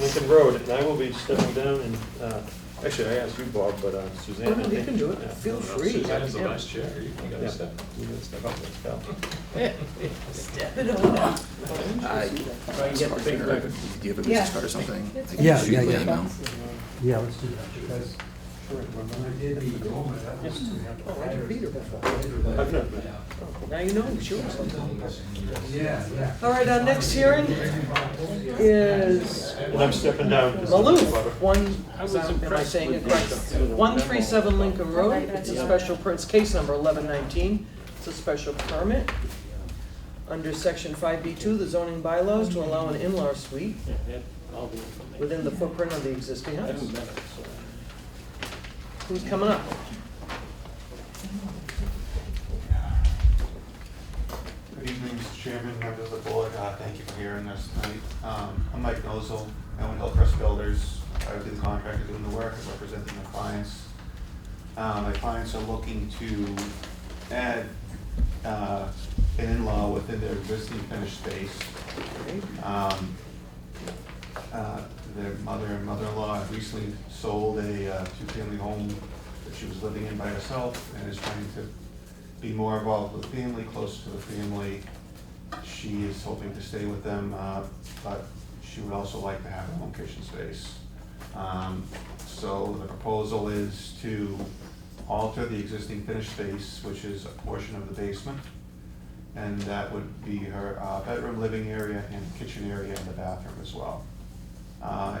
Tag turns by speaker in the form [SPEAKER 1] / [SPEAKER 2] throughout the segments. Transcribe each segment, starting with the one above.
[SPEAKER 1] Lincoln Road, and I will be stepping down and, uh, actually, I asked you, Bob, but uh, Suzanne.
[SPEAKER 2] No, Oh, no,
[SPEAKER 1] I
[SPEAKER 2] you
[SPEAKER 1] think-
[SPEAKER 2] can do it.
[SPEAKER 1] yeah.
[SPEAKER 2] Feel
[SPEAKER 1] No, no,
[SPEAKER 2] free.
[SPEAKER 1] Suzanne's
[SPEAKER 2] Have
[SPEAKER 1] the
[SPEAKER 2] him.
[SPEAKER 1] vice chair.
[SPEAKER 3] you can
[SPEAKER 1] Yeah, you gotta step up and step.
[SPEAKER 4] Step it on.
[SPEAKER 2] I-
[SPEAKER 5] Do you have a
[SPEAKER 4] Yeah.
[SPEAKER 5] business card or something? I can
[SPEAKER 6] Yeah,
[SPEAKER 5] shoot
[SPEAKER 6] yeah,
[SPEAKER 5] you
[SPEAKER 6] yeah.
[SPEAKER 5] an email.
[SPEAKER 6] Yeah, let's do that.
[SPEAKER 7] Because when I did the Goma, that was to have
[SPEAKER 2] Oh, I didn't read her before.
[SPEAKER 1] I've never met
[SPEAKER 2] Now you know, sure.
[SPEAKER 7] Yeah, yeah.
[SPEAKER 2] All right, our next hearing is
[SPEAKER 1] And I'm stepping down. 'cause I'm
[SPEAKER 2] Maloof,
[SPEAKER 1] a butter.
[SPEAKER 2] one,
[SPEAKER 1] I was
[SPEAKER 2] am I
[SPEAKER 1] impressed
[SPEAKER 2] saying it
[SPEAKER 1] with
[SPEAKER 2] correct?
[SPEAKER 1] the-
[SPEAKER 2] One three seven Lincoln Road, it's a special, per- it's case number eleven nineteen, it's a special permit under section five B two, the zoning bylaws to allow an in-law suite
[SPEAKER 3] Yeah, they had all the information.
[SPEAKER 2] within the footprint of the existing
[SPEAKER 3] I
[SPEAKER 2] house.
[SPEAKER 3] haven't met her, so.
[SPEAKER 2] Who's coming up?
[SPEAKER 8] Good evening, Mr. Chairman, members of the board. Uh, Thank you for hearing us tonight. Um, I'm Mike Nozel. I own Hillcrest Builders. I would do the contractor doing the work, I'm representing my clients. Uh, My clients are looking to add uh, an in-law within their existing finished space. Um, uh, Their mother and mother-in-law have recently sold a uh, two-family home that she was living in by herself and is trying to be more involved with family, close to the family. She is hoping to stay with them, uh, but she would also like to have her own kitchen space. Um, So the proposal is to alter the existing finished space, which is a portion of the basement, and that would be her uh, bedroom, living area, and kitchen area, and the bathroom as well. Uh,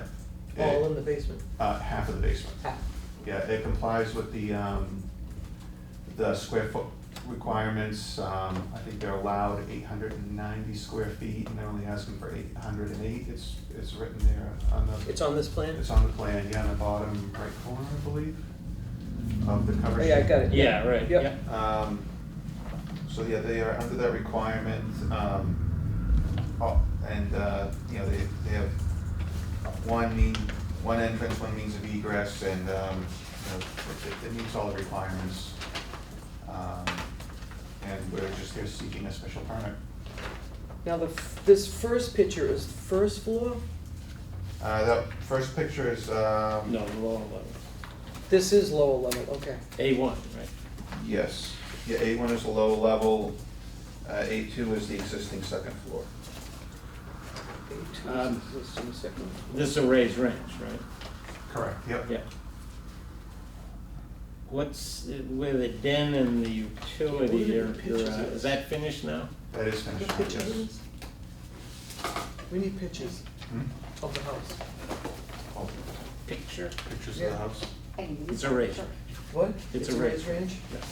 [SPEAKER 8] it-
[SPEAKER 2] All in the basement.
[SPEAKER 8] Uh, half of the basement. Yeah, it complies with the, um, the square foot requirements. Um, I think they're allowed eight hundred and ninety square feet, and they're only asking for eight hundred and eight. It's, it's written there on the.
[SPEAKER 2] It's on this plan?
[SPEAKER 8] It's on the plan, yeah, on the bottom right corner, I believe, of the cover.
[SPEAKER 2] Oh, Yeah, I
[SPEAKER 8] sheet.
[SPEAKER 2] got it.
[SPEAKER 3] Yeah, right,
[SPEAKER 2] Yep.
[SPEAKER 3] yeah.
[SPEAKER 8] Um, so yeah, they are under that requirement, um, oh, and, uh, you know, they, they have one mean, one entrance, one means of egress, and, um, you know, it, it meets all the requirements. Um, and we're just here seeking a special permit.
[SPEAKER 2] Now, the, f- this first picture is first floor?
[SPEAKER 8] Uh, the first picture is, um.
[SPEAKER 3] No, the lower level.
[SPEAKER 2] This is lower level, okay.
[SPEAKER 3] A one, right?
[SPEAKER 8] Yes, yeah, A one is the low level, uh, A two is the existing second floor.
[SPEAKER 2] A2
[SPEAKER 3] Um,
[SPEAKER 2] is existing second.
[SPEAKER 3] This is a raised range, right?
[SPEAKER 8] Correct, yep.
[SPEAKER 3] Yeah. What's, the- where the den and the utility
[SPEAKER 2] Yeah,
[SPEAKER 3] are,
[SPEAKER 2] what are the pictures
[SPEAKER 3] are, uh,
[SPEAKER 2] of
[SPEAKER 3] is that finished now?
[SPEAKER 8] That is
[SPEAKER 2] We
[SPEAKER 8] finished,
[SPEAKER 2] need pictures of
[SPEAKER 8] yes.
[SPEAKER 2] this? We need pictures
[SPEAKER 8] Hmm?
[SPEAKER 2] of the house.
[SPEAKER 8] Oh,
[SPEAKER 3] Picture?
[SPEAKER 8] Pictures
[SPEAKER 2] Yeah.
[SPEAKER 8] house.
[SPEAKER 3] It's a raised
[SPEAKER 2] What?
[SPEAKER 3] It's a
[SPEAKER 2] raised
[SPEAKER 3] range. Um,
[SPEAKER 2] range?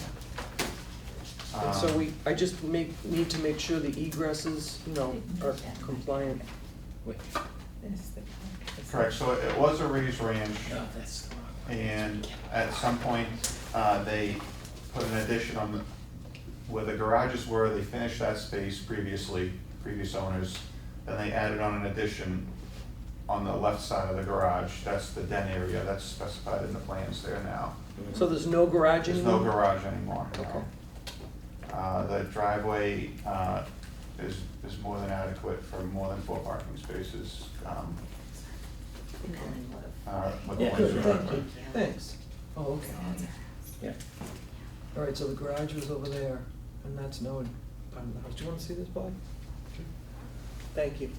[SPEAKER 2] And
[SPEAKER 8] Um,
[SPEAKER 2] so we, I just make, need to make sure the egresses, you know, are compliant.
[SPEAKER 3] Wait,
[SPEAKER 8] Correct, so it was a raised range,
[SPEAKER 3] no, that's the wrong one.
[SPEAKER 8] and at some point, uh, they put an addition on the, where the garages were, they finished that space previously, previous owners, then they added on an addition on the left side of the garage, that's the den area, that's specified in the plans there now.
[SPEAKER 2] So there's no garage
[SPEAKER 8] There's no
[SPEAKER 2] anymore?
[SPEAKER 8] garage anymore, no.
[SPEAKER 2] Okay.
[SPEAKER 8] Uh, the driveway, uh, is, is more than adequate for more than four parking spaces, um, uh, with the
[SPEAKER 3] Yeah.
[SPEAKER 8] length
[SPEAKER 2] Good,
[SPEAKER 8] of the
[SPEAKER 2] thank
[SPEAKER 8] driveway.
[SPEAKER 2] you, thanks. Oh, okay.
[SPEAKER 3] Yeah.
[SPEAKER 2] All right, so the garage was over there, and that's now in part of the house. Do you wanna see this, Bob? Thank you.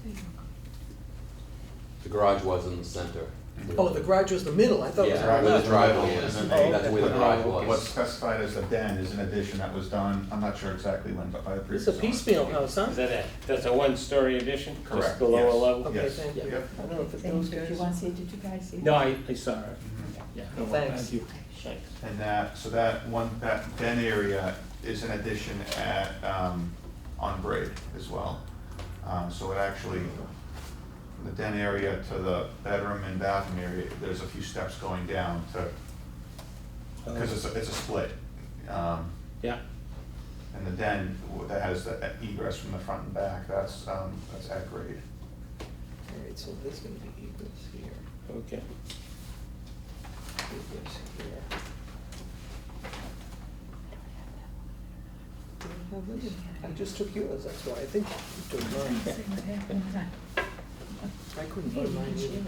[SPEAKER 9] The garage was in the center.
[SPEAKER 2] Oh, the garage was the middle, I thought it was.
[SPEAKER 9] Yeah,
[SPEAKER 2] on
[SPEAKER 9] where
[SPEAKER 2] the
[SPEAKER 9] the
[SPEAKER 2] left.
[SPEAKER 9] driveway is,
[SPEAKER 8] And
[SPEAKER 2] Oh,
[SPEAKER 8] then
[SPEAKER 9] that's
[SPEAKER 2] okay.
[SPEAKER 9] where the garage
[SPEAKER 8] they- What's
[SPEAKER 9] was.
[SPEAKER 8] specified as a den is an addition that was done, I'm not sure exactly when, but by the previous
[SPEAKER 2] It's a
[SPEAKER 8] owner.
[SPEAKER 2] piecemeal house, huh?
[SPEAKER 3] Is that it? That's a one-story addition? Just
[SPEAKER 8] Correct,
[SPEAKER 3] the lower
[SPEAKER 8] yes.
[SPEAKER 3] level?
[SPEAKER 2] Okay,
[SPEAKER 8] Yes.
[SPEAKER 2] thank you.
[SPEAKER 8] Yep.
[SPEAKER 2] I don't know if it
[SPEAKER 4] Thank
[SPEAKER 2] those
[SPEAKER 4] you. Did
[SPEAKER 2] guys.
[SPEAKER 4] you want to see, did you guys see?
[SPEAKER 3] No, I, I saw her.
[SPEAKER 8] Mhm.
[SPEAKER 3] Yeah.
[SPEAKER 2] Oh, thanks.
[SPEAKER 3] Thanks.
[SPEAKER 8] And that, so that one, that den area is an addition at, um, on grade as well. Um, so it actually, from the den area to the bedroom and bathroom area, there's a few steps going down to, because it's, a- it's a split. Um,
[SPEAKER 3] Yeah,
[SPEAKER 8] and the den that has the egress from the front and back, that's, um, that's at grade.
[SPEAKER 2] All right, so this is gonna be egress here,
[SPEAKER 3] okay.
[SPEAKER 2] egress here. Do we have this? I just took yours, that's why, I think you took mine. I couldn't find mine either.